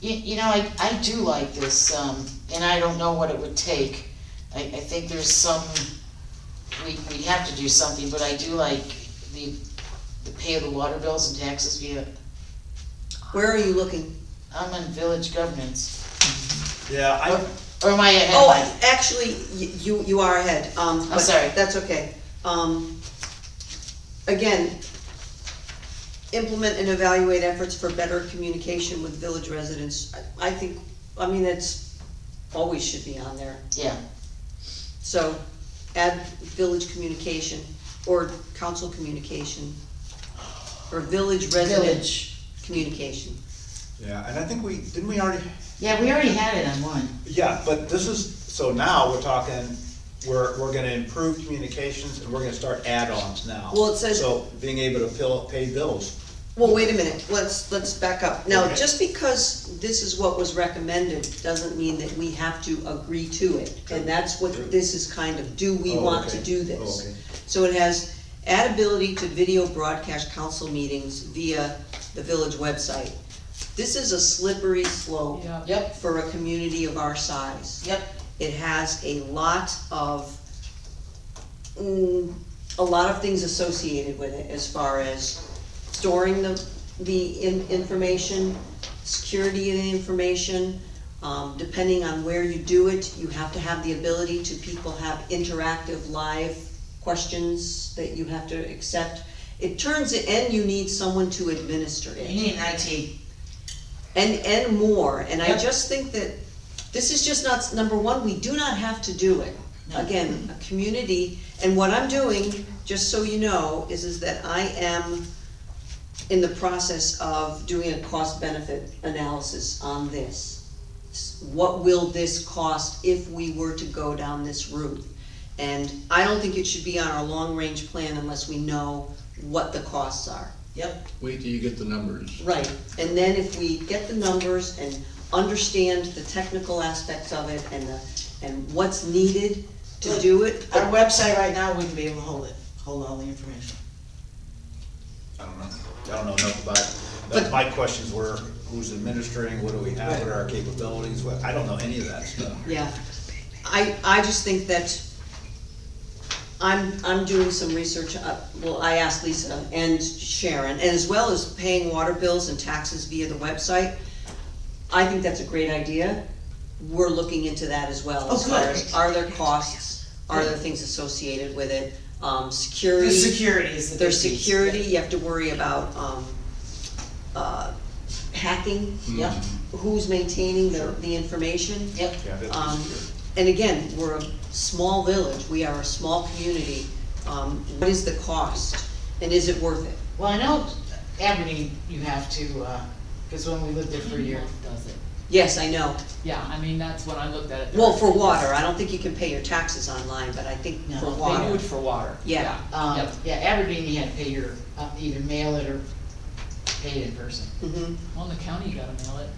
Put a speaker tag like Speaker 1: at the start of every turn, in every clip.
Speaker 1: You, you know, I, I do like this, um, and I don't know what it would take. I, I think there's some, we, we'd have to do something, but I do like the, the pay of the water bills and taxes via,
Speaker 2: Where are you looking?
Speaker 1: I'm on village governance.
Speaker 3: Yeah, I,
Speaker 1: Or am I ahead?
Speaker 2: Oh, I- actually, y- you, you are ahead, um. but
Speaker 1: sorry.
Speaker 2: That's okay. Um, again, implement and evaluate efforts for better communication with village residents. I- I think, I mean, that's, always should be on there.
Speaker 1: Yeah,
Speaker 2: So add village communication or council communication or village resident
Speaker 1: village.
Speaker 2: communication.
Speaker 3: yeah, and I think we, didn't we already,
Speaker 1: Yeah, we already had it on one.
Speaker 3: yeah, but this is, so now we're talking, we're, we're gonna improve communications and we're gonna start add-ons now.
Speaker 2: Well, it says-
Speaker 3: So being able to fill, pay bills,
Speaker 2: Well, wait a minute, let's, let's back up. Now,
Speaker 3: Okay.
Speaker 2: just because this is what was recommended, doesn't mean that we have to agree to it. And that's what this is kind of, do we
Speaker 3: Oh,
Speaker 2: want to
Speaker 3: okay.
Speaker 2: do
Speaker 3: Oh,
Speaker 2: this?
Speaker 3: okay.
Speaker 2: So it has add ability to video broadcast council meetings via the village website. This is a slippery slope
Speaker 4: Yeah.
Speaker 1: Yep,
Speaker 2: for a community of our size.
Speaker 1: yep,
Speaker 2: It has a lot of, mm, a lot of things associated with it as far as storing the, the in- information, security of the information. Um, depending on where you do it, you have to have the ability to people have interactive, live questions that you have to accept. It turns, it and you need someone to administer it.
Speaker 1: you need an IT.
Speaker 2: And, and more, and I
Speaker 1: Yep.
Speaker 2: just think that, this is just not, number one, we do not have to do it.
Speaker 1: No.
Speaker 2: Again, a community, and what I'm doing, just so you know, is, is that I am in the process of doing a cost benefit analysis on this. What will this cost if we were to go down this route? And I don't think it should be on our long-range plan unless we know what the costs are.
Speaker 1: Yep,
Speaker 5: Wait till you get the numbers.
Speaker 2: Right, and then if we get the numbers and understand the technical aspects of it and the, and what's needed to do it.
Speaker 1: our website right now wouldn't be able to hold it, hold all the information.
Speaker 3: I don't know, I don't know enough about, it. but my questions were, who's administering, what do we have, what are our capabilities, what, I don't know any of that stuff.
Speaker 2: Yeah, I, I just think that I'm, I'm doing some research, uh, well, I asked Lisa and Sharon, and as well as paying water bills and taxes via the website. I think that's a great idea. We're looking into that as well,
Speaker 1: Oh,
Speaker 2: as far
Speaker 1: good.
Speaker 2: as, are there costs, are there things associated with it, um, security?
Speaker 1: The security is the
Speaker 2: There's
Speaker 1: big piece.
Speaker 2: security, you have to worry about, um, uh, hacking,
Speaker 1: Yep,
Speaker 2: who's maintaining the,
Speaker 3: Sure.
Speaker 2: the information.
Speaker 1: yep,
Speaker 3: Yeah, that's
Speaker 2: Um,
Speaker 3: secure.
Speaker 2: and again, we're a small village, we are a small community, um, what is the cost, and is it worth it?
Speaker 1: well, I know Aberdeen, you have to, uh 'cause cause when we lived there for a year.
Speaker 4: Does it,
Speaker 2: Yes, I know,
Speaker 4: yeah, I mean, that's when I looked at it.
Speaker 2: well, for water, I don't think you can pay your taxes online, but I think
Speaker 1: No,
Speaker 2: for
Speaker 1: they
Speaker 4: They do
Speaker 2: water,
Speaker 4: it for water,
Speaker 2: Yeah.
Speaker 4: yeah,
Speaker 1: Um,
Speaker 4: yep.
Speaker 1: yeah, Aberdeen, you had to pay your, uh, either mail it or pay it in person,
Speaker 2: hmm
Speaker 4: Well, in the county, you gotta mail it.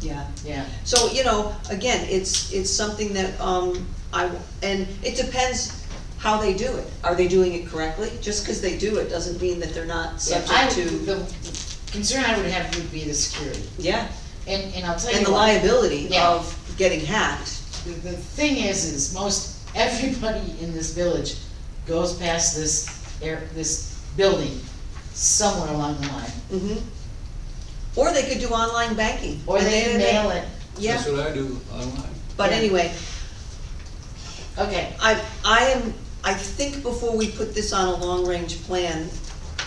Speaker 2: yeah.
Speaker 1: yeah.
Speaker 2: So, you know, again, it's, it's something that, um, I, and it depends how they do it. Are they doing it correctly? Just because they do it doesn't mean that they're not
Speaker 1: Yeah, I
Speaker 2: subject
Speaker 1: would-
Speaker 2: to,
Speaker 1: The concern I would have would be the security,
Speaker 2: yeah,
Speaker 1: and, and I'll tell you
Speaker 2: and the
Speaker 1: what,
Speaker 2: liability
Speaker 1: Yeah.
Speaker 2: of getting hacked.
Speaker 1: The, the thing is, is most, everybody in this village goes past this, air, this building somewhere along the line.
Speaker 2: hmm Or they could do online banking.
Speaker 1: Or
Speaker 2: And
Speaker 1: they mail it,
Speaker 2: Yeah,
Speaker 5: That's what I do online.
Speaker 2: but
Speaker 1: Yeah.
Speaker 2: anyway,
Speaker 1: okay,
Speaker 2: I, I am, I think before we put this on a long-range plan,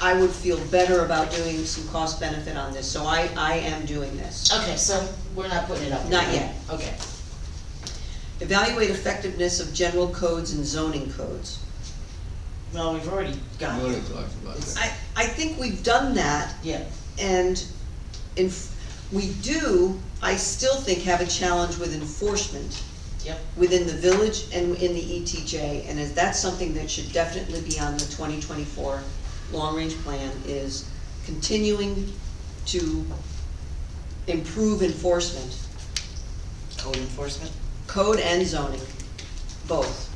Speaker 2: I would feel better about doing some cost benefit on this, so I, I am doing this.
Speaker 1: okay, so we're not putting it up.
Speaker 2: Not yet.
Speaker 1: Okay,
Speaker 2: Evaluate effectiveness of general codes and zoning codes.
Speaker 1: well, we've already
Speaker 5: I
Speaker 1: got
Speaker 5: already
Speaker 1: it,
Speaker 5: talked about that.
Speaker 2: I, I think we've done that,
Speaker 1: yeah,
Speaker 2: and in, we do, I still think have a challenge with enforcement
Speaker 1: yep,
Speaker 2: within the village and in the ETJ, and is that something that should definitely be on the twenty twenty-four long-range plan, is continuing to improve enforcement,
Speaker 1: code enforcement.
Speaker 2: code and zoning, both.